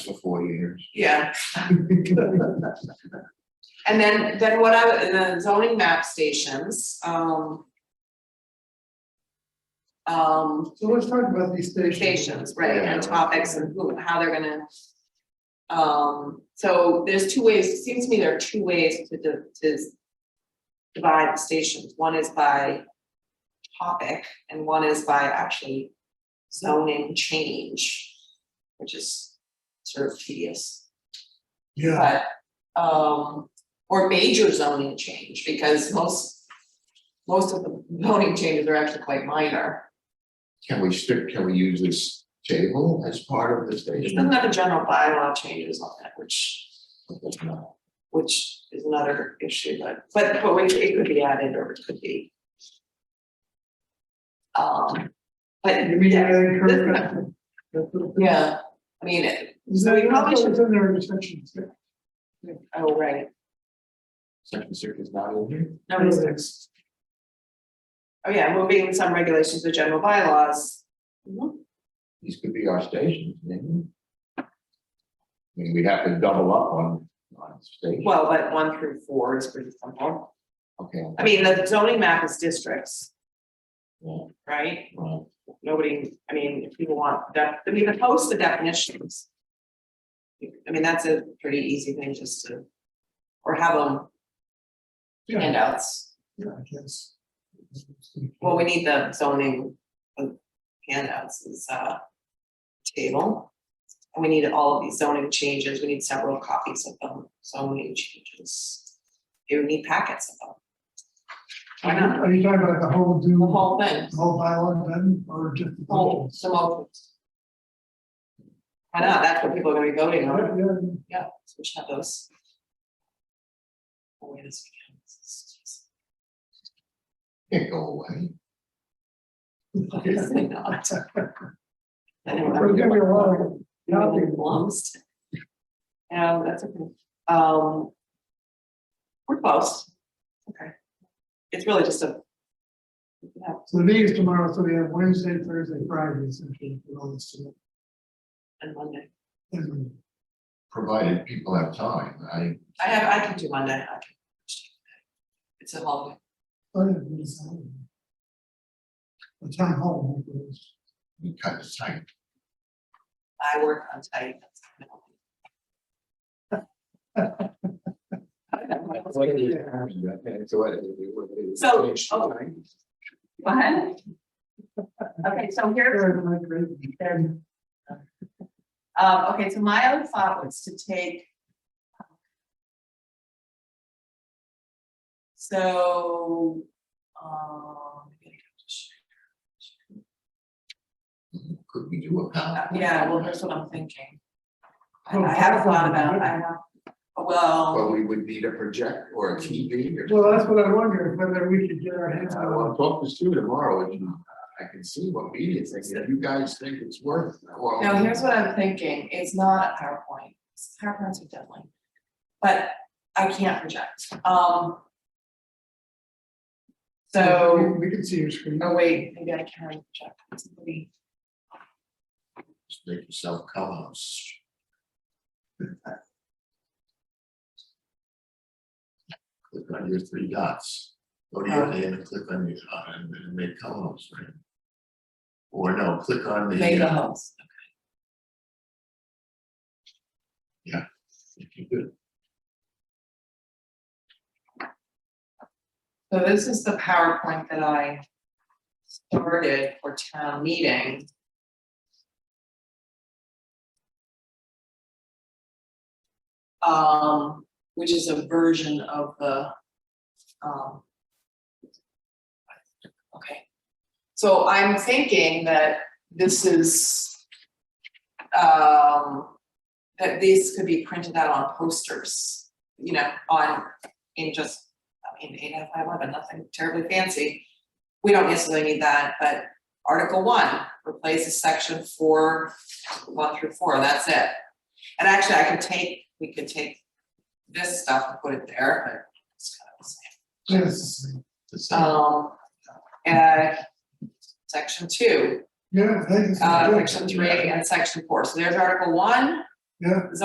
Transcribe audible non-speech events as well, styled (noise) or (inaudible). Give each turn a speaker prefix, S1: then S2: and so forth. S1: for four
S2: (laughs)
S1: years.
S3: Yeah. And then, then what I, and the zoning map stations, um. Um,
S2: So let's talk about these stations.
S3: stations, right, and topics and who, how they're gonna. Um, so there's two ways, it seems to me there are two ways to, di- to. Divide the stations, one is by topic and one is by actually zoning change, which is sort of tedious.
S2: Yeah,
S3: But, um, or major zoning change, because most, most of the zoning changes are actually quite minor.
S1: Can we stick, can we use this table as part of the
S3: It
S1: station?
S3: doesn't have a general bylaw changes on that, which, which is another issue, but, but, but we- it could be added or it could be. Um, but,
S2: you mean
S3: yeah,
S2: that
S3: (laughs)
S2: encouragement?
S3: yeah, I mean, it-
S2: Is that,
S3: We probably
S2: that's
S3: should-
S2: what's in there in sections, yeah.
S3: oh, right,
S1: Section six is not in here?
S3: number six. Oh,
S2: Mm-hmm.
S3: yeah, moving some regulations to general bylaws.
S2: Mm-hmm.
S1: These could be our stations, maybe. I mean, we have to double up on, on station,
S3: Well, but one through four is pretty simple.
S1: okay,
S3: I mean, the zoning map is districts,
S1: yeah,
S3: right?
S1: well,
S3: Nobody, I mean, if people want that, I mean, the post the definitions. I mean, that's a pretty easy thing just to, or have them
S2: Yeah,
S3: handouts.
S2: yeah, I guess.
S3: Well, we need the zoning uh, handouts is uh table. And we need all of these zoning changes. We need several copies of them, zoning changes. You need packets of them. Why not?
S2: Are you talking about the whole do,
S3: The
S2: whole
S3: whole Oh. thing,
S2: bylaw then, or just? the
S3: whole,
S2: portions?
S3: the motions. I know, that's what people are gonna be voting
S2: Yeah,
S3: on, (laughs)
S2: yeah,
S3: yeah, so we should have those. Oh, wait a second.
S1: can't go away.
S3: What is it not? I don't
S2: There's gonna be a lot
S3: know.
S2: of copy.
S3: Lost. Yeah, that's okay, um. We're close, okay. It's really just a. Yeah,
S2: So these tomorrow, so we have Wednesday, Thursday, Friday, essentially, for all this. stuff.
S3: and Monday,
S2: And
S1: Provided people have time, I,
S3: I have, I can do Monday, I can. It's a holiday.
S2: Friday, oh, we decide. The town hall. I think, is-
S1: we cut the time,
S3: I work on tight. that's my only- So, oh. Go ahead. Okay, so here,
S2: Sure, my great weekend.
S3: uh, okay, so my other thought was to take. So, um.
S1: could we do a pound?
S3: Uh, Yeah, well, that's what I'm thinking. I I haven't thought about, I have, well,
S1: But we would need a projector or a TV or.
S2: Well, that's what I wonder, whether we could get our hands
S1: I
S2: on one.
S1: will talk to Stu tomorrow and uh, I can see what media thinks, if you guys think it's worth, well.
S3: no, here's what I'm thinking, it's not a PowerPoint, PowerPoints are deadly. But I can't project, um. So.
S2: We we can see your screen.
S3: Oh, wait, maybe I can check. It's maybe-
S1: Just Make yourself colors. Click on your three dots, go to your name and click on your, uh, and and make columns, right? Or no, click on the.
S3: Mega
S1: uh,
S3: homes.
S1: If you could,
S3: So this is the PowerPoint that I started for town meeting. Um, which is a version of the, um. Okay, so I'm thinking that this is, um, that these could be printed out on posters, you know, on, in just I mean, eight out of five, eleven, nothing terribly fancy. We don't necessarily need that, but Article one replaces section four, one through four, that's it. And actually, I could take, we could take this stuff and put it there, but it's kind of the same.
S2: Yes,
S1: the same,
S3: Um, and section two,
S2: yeah, thank you.
S3: uh, section three and section four, so there's Article one.
S2: Yeah.